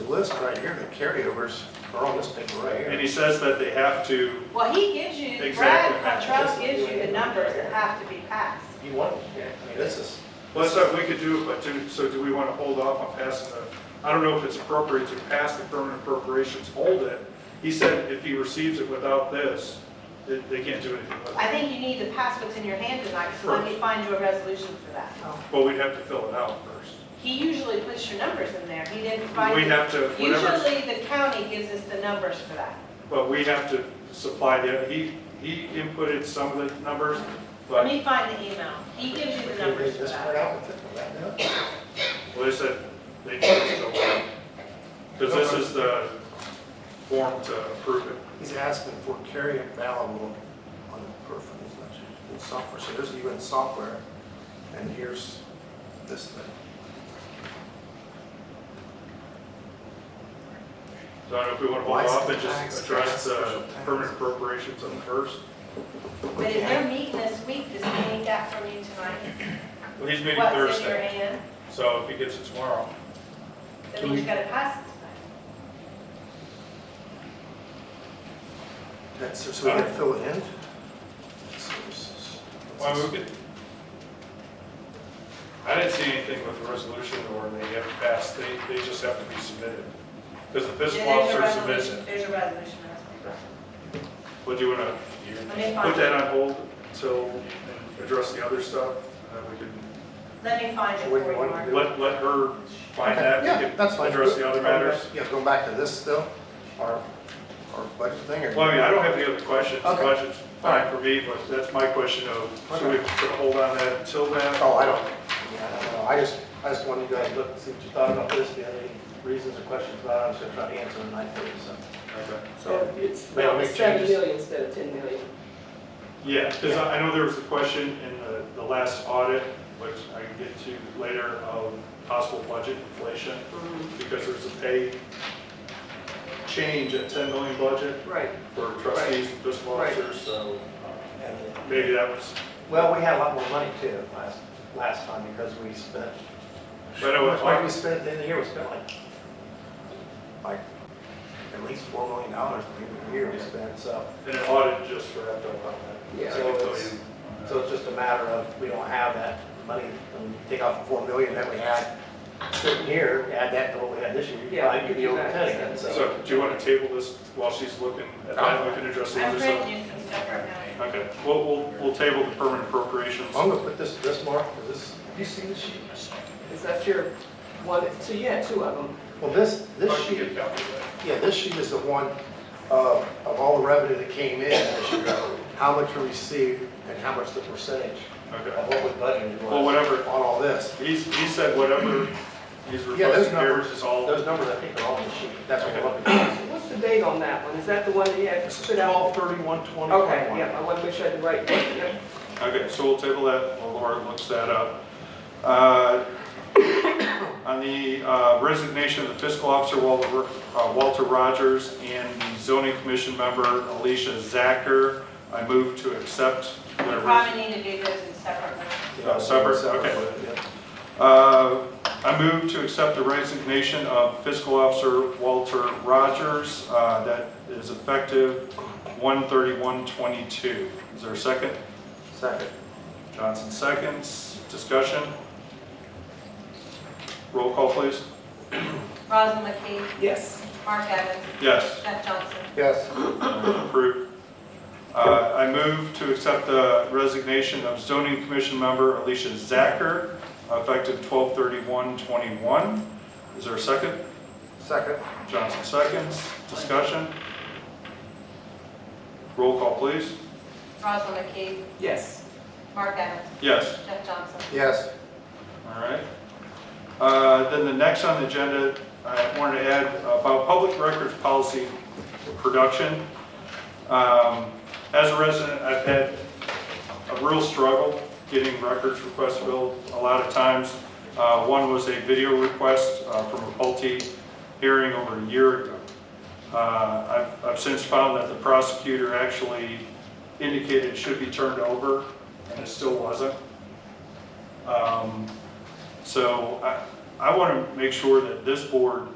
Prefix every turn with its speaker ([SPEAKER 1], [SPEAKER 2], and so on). [SPEAKER 1] list right here, the carryovers are on this paper right
[SPEAKER 2] And
[SPEAKER 1] here.
[SPEAKER 2] he says that they have to,
[SPEAKER 3] Well, he gives you,
[SPEAKER 2] Exactly.
[SPEAKER 3] Brad Cottrell gives you the numbers that have to be passed.
[SPEAKER 1] You want, yeah, I mean, this is,
[SPEAKER 2] well, so we could do it, but do, so do we want to hold off on passing the, I don't know if it's appropriate to pass the permanent appropriations, hold it. He said if he receives it without this, they, they can't do anything with
[SPEAKER 3] I
[SPEAKER 2] it.
[SPEAKER 3] think you need to pass what's in your hand tonight, so let me find you a resolution for that.
[SPEAKER 2] Well, we'd have to fill it out first.
[SPEAKER 3] He usually puts your numbers in there, he didn't find.
[SPEAKER 2] We have to, whatever,
[SPEAKER 3] Usually, the county gives us the numbers for that.
[SPEAKER 2] but we have to supply the, he, he inputted some of the numbers,
[SPEAKER 3] Let
[SPEAKER 2] but,
[SPEAKER 3] me find the email, he gives you the
[SPEAKER 1] can we
[SPEAKER 3] numbers for
[SPEAKER 1] just print
[SPEAKER 3] that.
[SPEAKER 1] out with it, will that do it?
[SPEAKER 2] well, they said they can't still Because this is the form to approve it.
[SPEAKER 1] He's asking for carryover available on the peripheral in software, so there's even software, and here's this thing.
[SPEAKER 2] So I don't know if we want to hold off and just address the permanent appropriations on the first.
[SPEAKER 3] But is there meeting this week, does he need that from you tonight?
[SPEAKER 2] Well, he's meeting
[SPEAKER 3] What's in your
[SPEAKER 2] Thursday,
[SPEAKER 3] hand,
[SPEAKER 2] so if he gets it tomorrow.
[SPEAKER 3] that means you gotta pass it tonight.
[SPEAKER 1] That's, so we can fill it in? Services.
[SPEAKER 2] Why move it? I didn't see anything with the resolution or they have to pass, they, they just have to be submitted. Because the fiscal
[SPEAKER 3] Yeah, there's a
[SPEAKER 2] officer submits
[SPEAKER 3] resolution-
[SPEAKER 2] it.
[SPEAKER 3] There's a resolution, that's what I'm-
[SPEAKER 2] Would you want to
[SPEAKER 3] Let me
[SPEAKER 2] put
[SPEAKER 3] find
[SPEAKER 2] that
[SPEAKER 3] it.
[SPEAKER 2] on hold until, and address the other stuff? And then we can,
[SPEAKER 3] Let me find it
[SPEAKER 1] So
[SPEAKER 3] for
[SPEAKER 1] what do
[SPEAKER 3] you,
[SPEAKER 1] you want to
[SPEAKER 3] Mark.
[SPEAKER 1] do?
[SPEAKER 2] let, let her find that.
[SPEAKER 1] Yeah,
[SPEAKER 2] We can
[SPEAKER 1] that's fine.
[SPEAKER 2] Address the other matters.
[SPEAKER 1] Yeah, going back to this still, our, our budget thing, or?
[SPEAKER 2] Well, I mean, I don't have any other questions. The
[SPEAKER 1] Okay.
[SPEAKER 2] Budget's fine for me, but that's my question of, should we put a hold on that until then?
[SPEAKER 1] Oh, I don't, yeah, I don't know, I just, I just wanted you guys to look and see what you thought about this, if you had any reasons or questions about it, I was gonna try to answer them tonight for you, so.
[SPEAKER 2] Okay.
[SPEAKER 4] So it's
[SPEAKER 1] May I make
[SPEAKER 4] seven
[SPEAKER 1] changes?
[SPEAKER 4] million instead of 10 million.
[SPEAKER 2] Yeah, because I I know there was a question in the, the last audit, which I can get to later, of possible budget inflation,
[SPEAKER 1] Mm-hmm.
[SPEAKER 2] because there's a pay change at 10 million budget
[SPEAKER 4] Right.
[SPEAKER 2] for trustees and fiscal
[SPEAKER 4] Right.
[SPEAKER 2] officers, so uh,
[SPEAKER 1] And,
[SPEAKER 2] maybe that was,
[SPEAKER 1] Well, we had a lot more money too, last, last time, because we spent,
[SPEAKER 2] but I
[SPEAKER 1] how much
[SPEAKER 2] was,
[SPEAKER 1] money we spent at the end of the year, we spent like, like, at least four million dollars at the end of the year we spent, so.
[SPEAKER 2] and an audit just wrapped up on that.
[SPEAKER 4] Yeah.
[SPEAKER 2] So I can tell
[SPEAKER 1] So
[SPEAKER 2] you on
[SPEAKER 1] So
[SPEAKER 2] that.
[SPEAKER 1] it's just a matter of, we don't have that money, when you take off the four million that we had sitting here, add that to what we had this year, you'd
[SPEAKER 4] Yeah,
[SPEAKER 1] probably be over
[SPEAKER 4] exactly.
[SPEAKER 1] ten again, so.
[SPEAKER 2] So do you want to table this while she's looking at that, we can address the
[SPEAKER 3] I'm
[SPEAKER 2] other stuff?
[SPEAKER 3] printing you some stuff right now.
[SPEAKER 2] Okay, we'll, we'll, we'll table the permanent appropriations.
[SPEAKER 1] I'm gonna put this, this mark, is this, have you seen this sheet?
[SPEAKER 4] Is that your one, so you had two of them.
[SPEAKER 1] Well, this,
[SPEAKER 2] I
[SPEAKER 1] this
[SPEAKER 2] can
[SPEAKER 1] sheet
[SPEAKER 2] get a copy of that.
[SPEAKER 1] Yeah, this sheet is the one of, of all the revenue that came in this year, how much we received and how much the percentage
[SPEAKER 2] Okay.
[SPEAKER 1] of what we budgeted was.
[SPEAKER 2] Well, whatever.
[SPEAKER 1] On all this.
[SPEAKER 2] He's, he said whatever he's
[SPEAKER 1] Yeah, those
[SPEAKER 2] requesting here
[SPEAKER 1] numbers,
[SPEAKER 2] is all,
[SPEAKER 1] those numbers I think are all in the sheet. That's what we're looking at.
[SPEAKER 4] What's the date on that one? Is that the one that you had put out?
[SPEAKER 1] Twelve thirty-one twenty
[SPEAKER 4] Okay,
[SPEAKER 1] twenty-one.
[SPEAKER 4] yeah, I want to make sure I had the right one. Yep.
[SPEAKER 2] okay, so we'll table that while Laura looks that up. Uh, On the uh, resignation of the fiscal officer Walter uh, Walter Rogers and the zoning commission member Alicia Zacher, I move to accept
[SPEAKER 3] You
[SPEAKER 2] their resignation.
[SPEAKER 3] probably need to do this in separate ones.
[SPEAKER 2] Oh, separate, okay. Uh, I move to accept the resignation of fiscal officer Walter Rogers uh, that is effective 1/31/22. Is there a second?
[SPEAKER 1] Second.
[SPEAKER 2] Johnson seconds. Discussion? Roll call, please.
[SPEAKER 3] Rosalyn McKee,
[SPEAKER 4] Yes.
[SPEAKER 3] Mark Evans,
[SPEAKER 2] Yes.
[SPEAKER 3] Jeff Johnson.
[SPEAKER 1] Yes,
[SPEAKER 2] Approved. Uh, I move to accept the resignation of zoning commission member Alicia Zacher effective 12/31/21. Is there a second?
[SPEAKER 1] second.
[SPEAKER 2] Johnson seconds. Discussion? Roll call, please.
[SPEAKER 3] Rosalyn McKee,
[SPEAKER 4] Yes.
[SPEAKER 3] Mark Evans,
[SPEAKER 2] Yes.
[SPEAKER 3] Jeff Johnson.
[SPEAKER 1] Yes,
[SPEAKER 2] All right. Uh, Then the next on the agenda, I wanted to add about public records policy production. Um, As a resident, I've had a real struggle getting records requests filled a lot of times. Uh, One was a video request uh, from a Pulte hearing over a year ago. Uh, I've I've since found that the prosecutor actually indicated it should be turned over, and it still wasn't. Um, So I, I want to make sure that this board